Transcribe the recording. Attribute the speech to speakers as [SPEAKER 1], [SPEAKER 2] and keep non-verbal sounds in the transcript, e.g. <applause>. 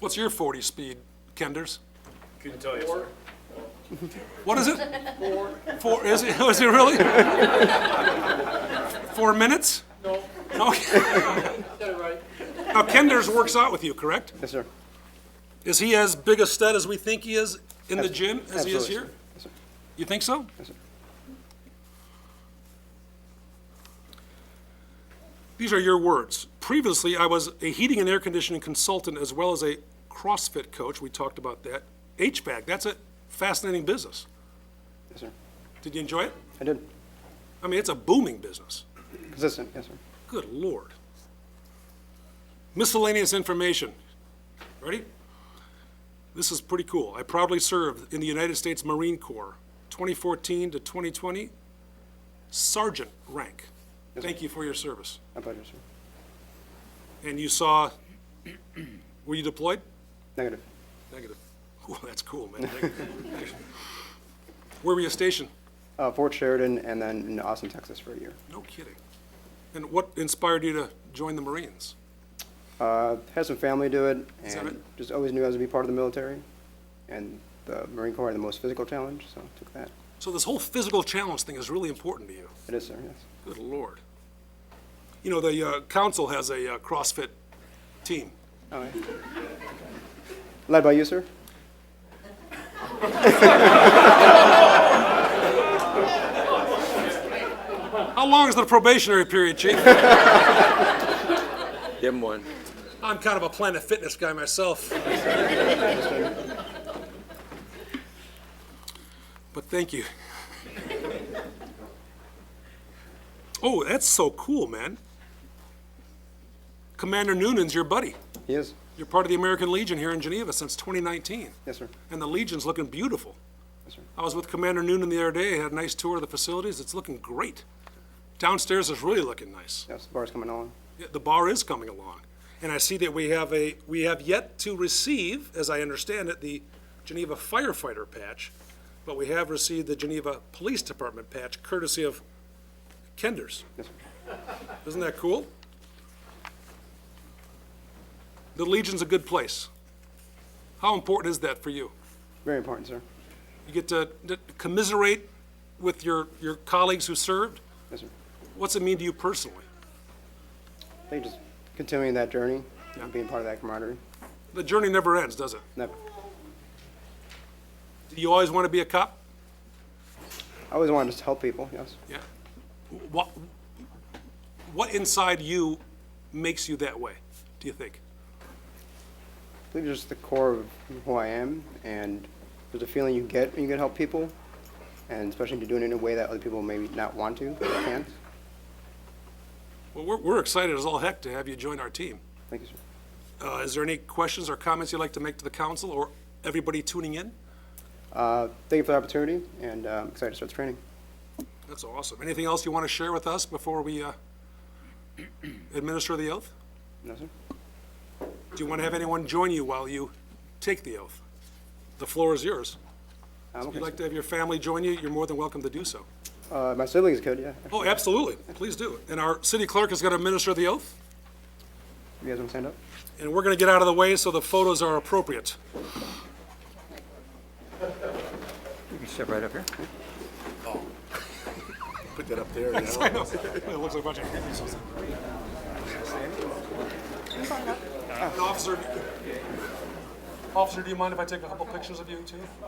[SPEAKER 1] What's your 40 speed, Kenders?
[SPEAKER 2] Couldn't tell you, sir.
[SPEAKER 1] What is it? Four. Four, is it, is it really? Four minutes?
[SPEAKER 2] No,
[SPEAKER 1] No.
[SPEAKER 2] said it right.
[SPEAKER 1] Now, Kenders works out with you, correct?
[SPEAKER 3] Yes, sir.
[SPEAKER 1] Is he as big a stud as we think he is in the gym as he is
[SPEAKER 3] Absolutely, sir.
[SPEAKER 1] here?
[SPEAKER 3] Yes, sir.
[SPEAKER 1] You think so?
[SPEAKER 3] Yes, sir.
[SPEAKER 1] These are your words. Previously, I was a heating and air conditioning consultant as well as a CrossFit coach. We talked about that. HVAC, that's a fascinating business.
[SPEAKER 3] Yes, sir.
[SPEAKER 1] Did you enjoy it?
[SPEAKER 3] I did.
[SPEAKER 1] I mean, it's a booming business.
[SPEAKER 3] Consistent, yes, sir.
[SPEAKER 1] Good lord. Miscellaneous information. Ready? This is pretty cool. I proudly served in the United States Marine Corps, 2014 to 2020, sergeant rank. Thank you for your service.
[SPEAKER 3] My pleasure, sir.
[SPEAKER 1] And you saw, <clears throat> were you deployed?
[SPEAKER 3] Negative.
[SPEAKER 1] Negative. <laughs> Ooh, that's cool, man. <laughs> Where were you stationed?
[SPEAKER 3] Uh, Fort Sheridan and then in Austin, Texas for a year.
[SPEAKER 1] No kidding. And what inspired you to join the Marines?
[SPEAKER 3] Uh, had some family do it
[SPEAKER 1] Is that
[SPEAKER 3] and
[SPEAKER 1] it?
[SPEAKER 3] just always knew I was gonna be part of the military. And the Marine Corps had the most physical challenge, so took that.
[SPEAKER 1] So this whole physical challenge thing is really important to you.
[SPEAKER 3] It is, sir, yes.
[SPEAKER 1] Good lord. You know, the uh, council has a uh, CrossFit team.
[SPEAKER 3] All right. Led by you, sir?
[SPEAKER 1] How long is the probationary period, Chief?
[SPEAKER 4] Give him one.
[SPEAKER 1] <laughs> I'm kind of a Planet Fitness guy myself. But thank you. Oh, that's so cool, man. Commander Noonan's your buddy.
[SPEAKER 3] He is?
[SPEAKER 1] You're part of the American Legion here in Geneva since 2019.
[SPEAKER 3] Yes, sir.
[SPEAKER 1] And the Legion's looking beautiful.
[SPEAKER 3] Yes, sir.
[SPEAKER 1] I was with Commander Noonan the other day, had a nice tour of the facilities, it's looking great. Downstairs is really looking nice.
[SPEAKER 3] Yes, the bar's coming along.
[SPEAKER 1] Yeah, The bar is coming along. And I see that we have a, we have yet to receive, as I understand it, the Geneva firefighter patch, but we have received the Geneva Police Department patch courtesy of Kenders.
[SPEAKER 3] Yes, sir.
[SPEAKER 1] Isn't that cool? The Legion's a good place. How important is that for you?
[SPEAKER 3] Very important, sir.
[SPEAKER 1] You get to to commiserate with your, your colleagues who served.
[SPEAKER 3] Yes, sir.
[SPEAKER 1] What's it mean to you personally?
[SPEAKER 3] I think just continuing that journey, and being part of that camaraderie.
[SPEAKER 1] The journey never ends, does it?
[SPEAKER 3] Never.
[SPEAKER 1] Do you always want to be a cop?
[SPEAKER 3] I always wanted to help people, yes.
[SPEAKER 1] Yeah. What, what inside you makes you that way, do you think?
[SPEAKER 3] I believe just the core of who I am, and there's a feeling you get when you can help people, and especially if you're doing it in a way that other people maybe not want to, but can't.
[SPEAKER 1] Well, we're, we're excited as all heck to have you join our team.
[SPEAKER 3] Thank you, sir.
[SPEAKER 1] Uh, is there any questions or comments you'd like to make to the council or everybody tuning in?
[SPEAKER 3] Uh, thank you for the opportunity, and uh, I'm excited to start the training.
[SPEAKER 1] That's awesome. Anything else you want to share with us before we uh, <clears throat> administer the oath?
[SPEAKER 3] No, sir?
[SPEAKER 1] Do you want to have anyone join you while you take the oath? The floor is yours.
[SPEAKER 3] I'm
[SPEAKER 1] If
[SPEAKER 3] okay,
[SPEAKER 1] you'd like
[SPEAKER 3] sir.
[SPEAKER 1] to have your family join you, you're more than welcome to do so.
[SPEAKER 3] Um, Uh, my siblings could, yeah.
[SPEAKER 1] Oh, absolutely. Please do. And our city clerk is going to administer the oath,
[SPEAKER 3] You guys want to stand up?
[SPEAKER 1] and we're going to get out of the way so the photos are appropriate.
[SPEAKER 4] You can step right up here.
[SPEAKER 1] Oh. <laughs>
[SPEAKER 2] Put that up there,
[SPEAKER 1] I know. It looks like a bunch of hippies. And Officer, officer, do you mind if I take a couple pictures of you too?